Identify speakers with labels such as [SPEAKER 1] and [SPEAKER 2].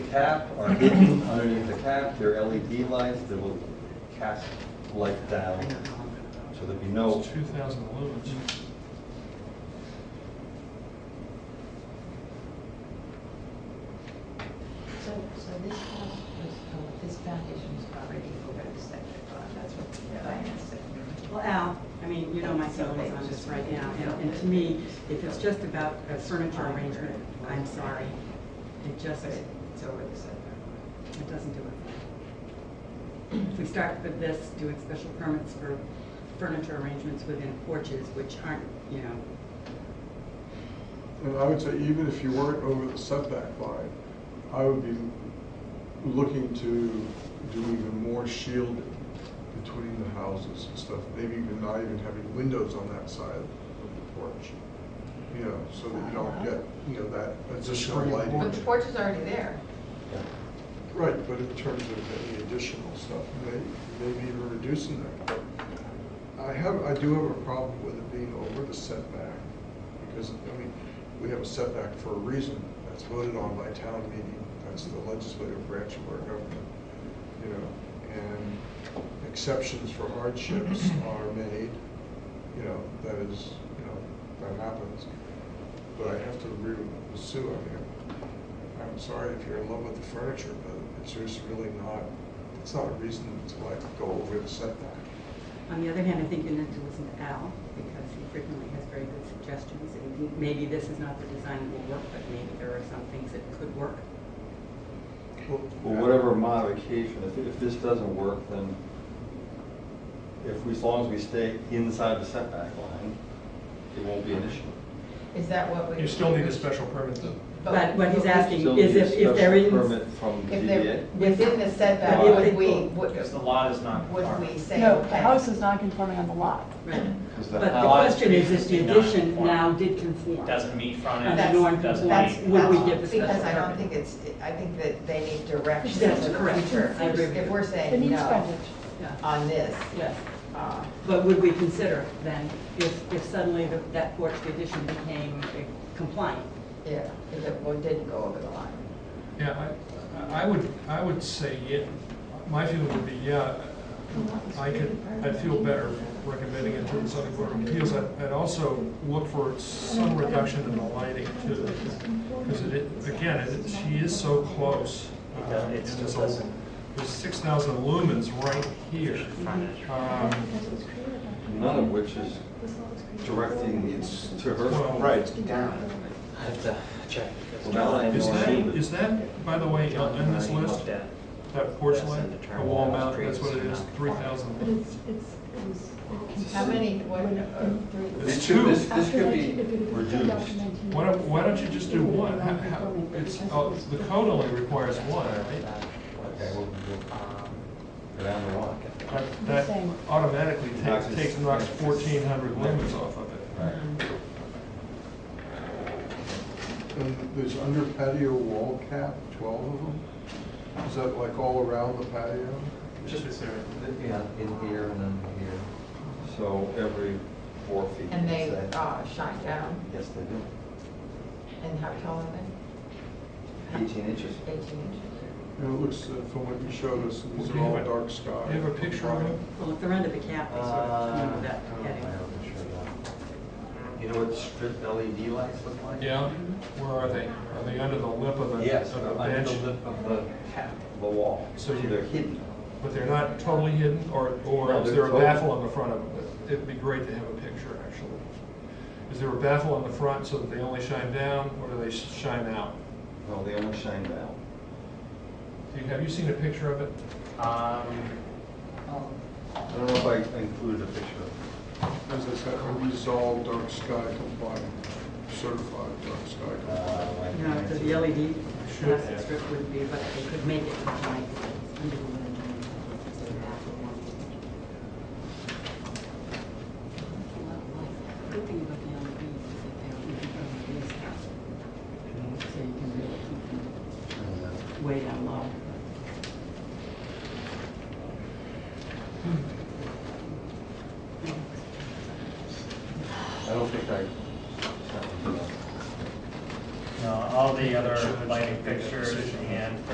[SPEAKER 1] cap are hidden underneath the cap. They're LED lights that will cast light down, so there'd be no,
[SPEAKER 2] It's two thousand lumens.
[SPEAKER 3] So, so this house was, oh, this foundation was already over the septic lot, that's what Diana said.
[SPEAKER 4] Well, Al, I mean, you know my feelings on this right now, and, and to me, if it's just about a furniture arrangement, I'm sorry. It just,
[SPEAKER 3] It's over the setback.
[SPEAKER 4] it doesn't do it. If we start with this, doing special permits for furniture arrangements within porches, which aren't, you know,
[SPEAKER 5] And I would say even if you weren't over the setback line, I would be looking to do even more shielding between the houses and stuff, maybe even not even having windows on that side of the porch. You know, so that you don't get, you know, that additional
[SPEAKER 2] screen
[SPEAKER 5] lighting.
[SPEAKER 2] porch.
[SPEAKER 3] But the porch is already there.
[SPEAKER 1] yeah.
[SPEAKER 5] Right, but in terms of any additional stuff, may- maybe even reducing that. I have, I do have a problem with it being over the setback, because, I mean, we have a setback for a reason. That's voted on by town meeting, that's the legislative branch of our government, you know, and exceptions for hardships are made, you know, that is, you know, that happens. But I have to agree with Sue, I mean, I'm sorry if you're in love with the furniture, but it's just really not, it's not a reason to like go over the setback.
[SPEAKER 4] On the other hand, I think you need to listen to Al, because he frequently has very good suggestions, and maybe this is not the design that will work, but maybe there are some things that could work.
[SPEAKER 1] Well, whatever modification, if, if this doesn't work, then if we, as long as we stay inside the setback line, it won't be an issue.
[SPEAKER 3] Is that what we?
[SPEAKER 2] You still need a special permit though.
[SPEAKER 4] But what he's asking
[SPEAKER 1] Still
[SPEAKER 4] is
[SPEAKER 1] need a
[SPEAKER 4] if, if there
[SPEAKER 1] special
[SPEAKER 4] is.
[SPEAKER 1] Permit from
[SPEAKER 3] If they're
[SPEAKER 1] DDA.
[SPEAKER 3] within the setback,
[SPEAKER 4] Well,
[SPEAKER 3] would we, would,
[SPEAKER 6] Because the lot is not.
[SPEAKER 3] would
[SPEAKER 6] required.
[SPEAKER 3] we say?
[SPEAKER 7] No, the
[SPEAKER 3] okay?
[SPEAKER 7] house is not conforming on the lot.
[SPEAKER 4] Right.
[SPEAKER 1] Because the
[SPEAKER 4] But the
[SPEAKER 1] house-
[SPEAKER 4] question is, if the
[SPEAKER 6] Did not
[SPEAKER 4] addition
[SPEAKER 6] conform.
[SPEAKER 4] now did conform.
[SPEAKER 6] Doesn't meet
[SPEAKER 4] And
[SPEAKER 6] frontage,
[SPEAKER 4] that's-
[SPEAKER 6] doesn't
[SPEAKER 4] that's-
[SPEAKER 6] meet.
[SPEAKER 4] Would we give the special
[SPEAKER 3] Because I don't
[SPEAKER 4] permit?
[SPEAKER 3] think it's, I think that they need direction
[SPEAKER 4] That's
[SPEAKER 3] for the
[SPEAKER 4] correct.
[SPEAKER 3] future.
[SPEAKER 4] I agree with
[SPEAKER 3] If
[SPEAKER 4] you.
[SPEAKER 3] we're
[SPEAKER 7] It
[SPEAKER 3] saying
[SPEAKER 7] needs
[SPEAKER 3] no
[SPEAKER 7] frontage.
[SPEAKER 4] Yeah.
[SPEAKER 3] on this,
[SPEAKER 4] Yes,
[SPEAKER 3] uh,
[SPEAKER 4] but would we consider then, if, if suddenly the- that porch addition became compliant?
[SPEAKER 3] yeah, if it well, didn't go over the line.
[SPEAKER 2] Yeah, I- I, I would, I would say yeah. My feeling would be yeah. I could, I'd feel better recommending it to the zoning board of appeals. I'd I'd also look for some reduction in the lighting too. Because it, again, it- she is so close.
[SPEAKER 6] It does- it
[SPEAKER 2] um, and
[SPEAKER 6] still
[SPEAKER 2] it's a-
[SPEAKER 6] doesn't-
[SPEAKER 2] There's six thousand lumens right here.
[SPEAKER 6] Frontage.
[SPEAKER 2] Um,
[SPEAKER 1] None of which is directing it to her.
[SPEAKER 2] Well-
[SPEAKER 1] Right.
[SPEAKER 6] I have to check. because
[SPEAKER 1] Well, now I
[SPEAKER 2] Is
[SPEAKER 1] know
[SPEAKER 2] that,
[SPEAKER 1] I need it.
[SPEAKER 2] is that, by the way, on on this
[SPEAKER 6] Looked
[SPEAKER 2] list,
[SPEAKER 6] at.
[SPEAKER 2] that porch
[SPEAKER 6] Yes, and
[SPEAKER 2] light, the
[SPEAKER 6] determine
[SPEAKER 2] wall
[SPEAKER 6] those
[SPEAKER 2] mount, that's what it
[SPEAKER 6] trees
[SPEAKER 2] is,
[SPEAKER 6] are not
[SPEAKER 2] three
[SPEAKER 6] required.
[SPEAKER 2] thousand
[SPEAKER 8] But
[SPEAKER 2] lumens.
[SPEAKER 8] it's, it's, it was.
[SPEAKER 3] How many, what, uh, three?
[SPEAKER 1] This could, this, this could be reduced.
[SPEAKER 2] Why don't, why don't you just do one? How- how- It's, oh, the code only requires one, right?
[SPEAKER 1] Okay, we'll, we'll
[SPEAKER 6] Um,
[SPEAKER 1] go down the line.
[SPEAKER 2] That- That automatically
[SPEAKER 1] Knocks
[SPEAKER 2] takes,
[SPEAKER 1] it-
[SPEAKER 2] takes, knocks fourteen hundred lumens off of it.
[SPEAKER 1] Right.
[SPEAKER 5] And there's under patio wall cap, twelve of them? Is that like all around the patio?
[SPEAKER 6] Just be clear.
[SPEAKER 1] Yeah, in here and then here. So every four feet.
[SPEAKER 3] And they
[SPEAKER 1] let's say.
[SPEAKER 3] uh, shine down,
[SPEAKER 1] Yes, they do.
[SPEAKER 3] and how tall are they?
[SPEAKER 1] Eighteen inches.
[SPEAKER 3] Eighteen inches.
[SPEAKER 5] You know, it looks, uh, from what you showed us, these are all dark sky.
[SPEAKER 2] Do you have a picture of it?
[SPEAKER 4] Well, if they're under the cap, they sort of
[SPEAKER 6] Uh,
[SPEAKER 4] come under that
[SPEAKER 1] Uh,
[SPEAKER 4] heading.
[SPEAKER 1] You know what strip LED lights look like?
[SPEAKER 2] Yeah, where are they? Are they under the lip of the,
[SPEAKER 1] Yes,
[SPEAKER 2] of the
[SPEAKER 1] under
[SPEAKER 2] bench?
[SPEAKER 1] the lip of the cap, the wall.
[SPEAKER 2] So you-
[SPEAKER 1] They're hidden.
[SPEAKER 2] But they're not totally hidden, or, or
[SPEAKER 1] No,
[SPEAKER 2] is
[SPEAKER 1] they're
[SPEAKER 2] there a
[SPEAKER 1] totally-
[SPEAKER 2] baffle on the front of them? It'd be great to have a picture, actually. Is there a baffle on the front so that they only shine down, or do they sh- shine out?
[SPEAKER 1] No, they only shine down.
[SPEAKER 2] Do you, have you seen a picture of it?
[SPEAKER 6] Um,
[SPEAKER 1] I don't know if I included a picture of it.
[SPEAKER 5] As I said, a resolved dark sky compliant, certified dark sky compliant.
[SPEAKER 1] Uh, I
[SPEAKER 4] You know,
[SPEAKER 1] can't
[SPEAKER 4] the E
[SPEAKER 1] see.
[SPEAKER 4] the LED
[SPEAKER 2] Should
[SPEAKER 4] plastic
[SPEAKER 2] have.
[SPEAKER 4] strip would be, but they could make it compliant. with under the limit line, because they're half of one. Good thing about the LEDs is that they're even from the least house. So you can really keep them way down low.
[SPEAKER 1] I don't think I.
[SPEAKER 6] no, all the other lighting pictures